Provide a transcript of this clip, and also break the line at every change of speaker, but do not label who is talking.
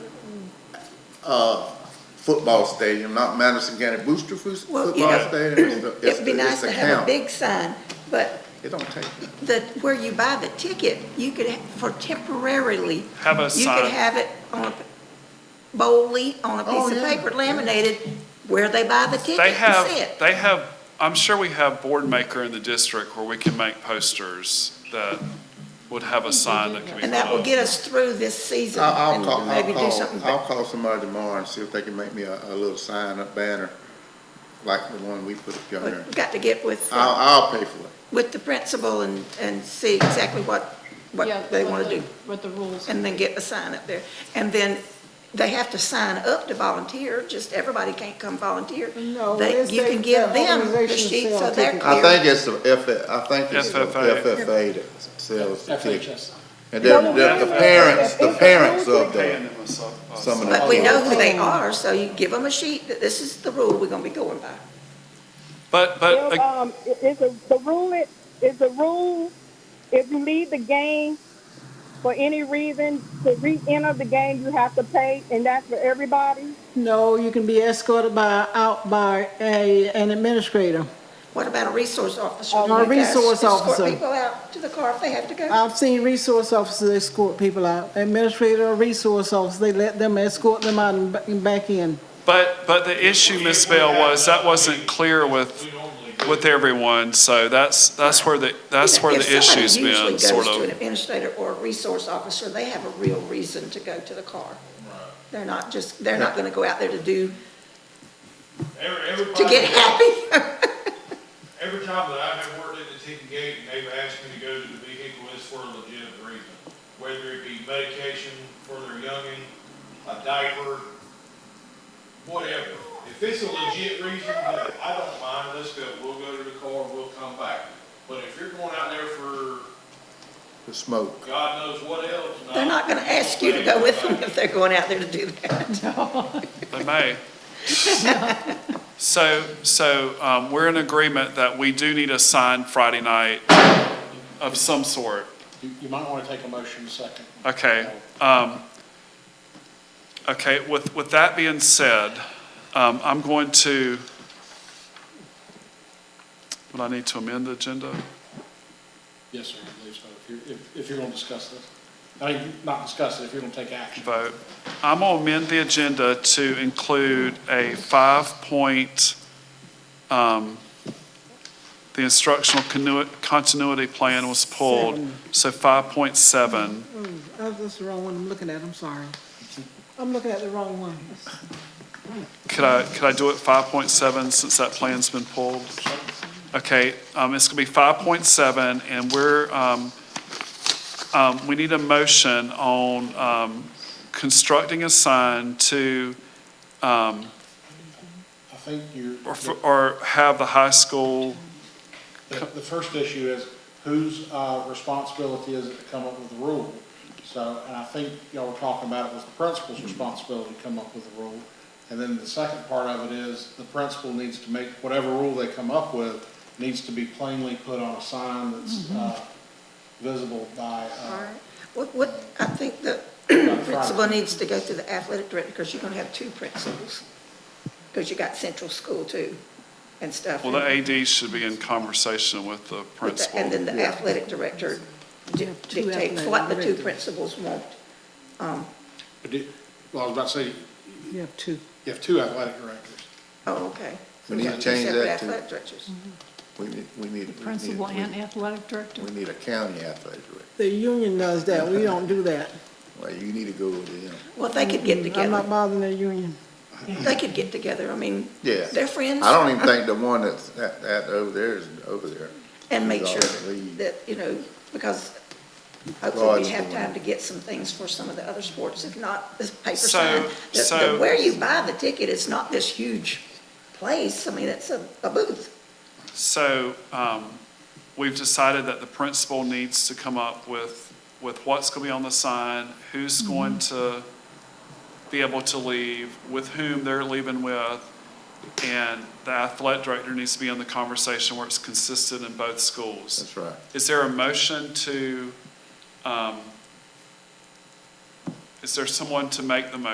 uh, football stadium, not Madison County Booster Fu-
Well,
Football
you know,
Stadium. It's-
It'd be nice
it's
to have a
county.
big sign, but
It don't take,
the, where you buy the ticket, you could, ha- for temporarily,
Have a
you could
sign,
have it on a, boldly, on a
Oh,
piece of
yeah,
paper
yeah.
laminated, where they buy the ticket
they
and
have,
sit.
they have, I'm sure we have board maker in the district where we can make posters that would have a sign that can be.
And that will
put up.
get us through this season
I'll, I'll call,
and
I'll
maybe do
call,
something.
I'll call somebody tomorrow and see if they can make me a, a little sign up banner, like the one we put up
But
yonder.
we've got to get with, uh,
I'll, I'll pay for it.
with the principal and, and see exactly what,
Yeah,
what they
what
want to
the-
do.
What the rules.
And then get a sign up there. And then they have to sign up to volunteer, just everybody can't come volunteer.
No,
They-
it's
You
the-
can give
the
them the
organizations
sheet so
sell
they're
tickets.
clear.
I think it's the F, I think it's the
FFA.
FFA that sells the tickets.
FHS.
And then the the parents, the parents of
Paying
the,
them a su- a
Some of
sign.
the-
But we know who they are, so you give them a sheet that this is the rule we're gonna be going by.
But, but,
Well,
uh,
um, i- is a, the rule i- is the rule if you leave the game for any reason to re-enter the game you have to pay, and that's for everybody.
No, you can be escorted by, out by a, an administrator.
What about a resource officer?
Oh, a
You guys
resource
escort
officer.
people out to the car if they have to go.
I've seen resource officers escort people out, administrator or resource officer, they let them escort them out and ba- and back in.
but, but the issue, Ms. Bell, was that wasn't clear with, with everyone, so that's, that's where the, that's where
If
the
somebody
issue's been,
usually
sort
goes to an
of.
administrator or a resource officer, they have a real reason to go to the car. They're not just, they're not gonna go out there to do,
Every,
to
everybody,
get happy.
every time that I've ever worked at the ticket gate, and they've asked me to go to the vehicle, it's for a legitimate reason. Whether it be medication for their youngin', a diaper, whatever. If it's a legit reason, then I don't mind, let's go, we'll go to the car, we'll come back. But if you're going out there for
the smoke.
God knows what else. no.
They're not gonna ask you to go with them if they're going out there to do that.
They may. So, so um, we're in agreement that we do need a sign Friday night of some sort.
You, you might want to take a motion second.
Okay. um, Okay, with, with that being said, um, I'm going to, would I need to amend the agenda?
Yes, sir, I believe so. If you're, if, if you're going to discuss this. I mean, not discuss it, if you're going to take action.
vote. I'm going to amend the agenda to include a five-point, um, the instructional continu- continuity plan was pulled, so 5.7.
Oh, that's the wrong one I'm looking at, I'm sorry. I'm looking at the wrong one.
Could I, could I do it 5.7 since that plan's been pulled? Okay, um, it's going to be 5.7, and we're, um, um, we need a motion on um, constructing a sign to um,
I think you're,
or,
the,
or have the high school,
the first issue is whose, uh, responsibility is it to come up with the rule? So, and I think y'all were talking about it was the principal's responsibility to come up with the rule. And then the second part of it is the principal needs to make, whatever rule they come up with, needs to be plainly put on a sign that's, uh, visible by, uh,
What, what, I think the principal needs to go through the athletic director, because you're gonna have two principals. Because you got central school too, and stuff.
well, the AD should be in conversation with the
With the- And
principal.
then the athletic director di-
have two
dictates
athletic
what the two
directors.
principals want.
well, I was about to say,
You have two.
You have two athletic directors.
Oh, okay.
We need to
Two
change
separate
that to-
athletic directors.
Mm-hmm.
We need, we need. we need-
Principal and athletic director.
We need a county athletic director.
The union does that, we don't do that.
Well, you need to go with him.
Well, they could get
Mm-hmm. I'm not
together,
bothering the union.
they could get together, I mean,
Yeah.
they're friends.
I don't even think the one that's, that, that over there is over there.
And make
He's
sure
already lead.
that, you know, because hopefully
Rod's
we have
going.
time to get some things for some of the other sports, if not this paper
So-
sign. The- the-
so-
Where you buy the ticket, it's not this huge place, I mean, it's a, a booth.
So, um, we've decided that the principal needs to come up with, with what's gonna be on the sign, who's
Mm-hmm.
going to be able to leave, with whom they're leaving with, and the athletic director needs to be in the conversation where it's consistent in both schools.
That's right.
Is there a motion to, um, is there someone to make the motion?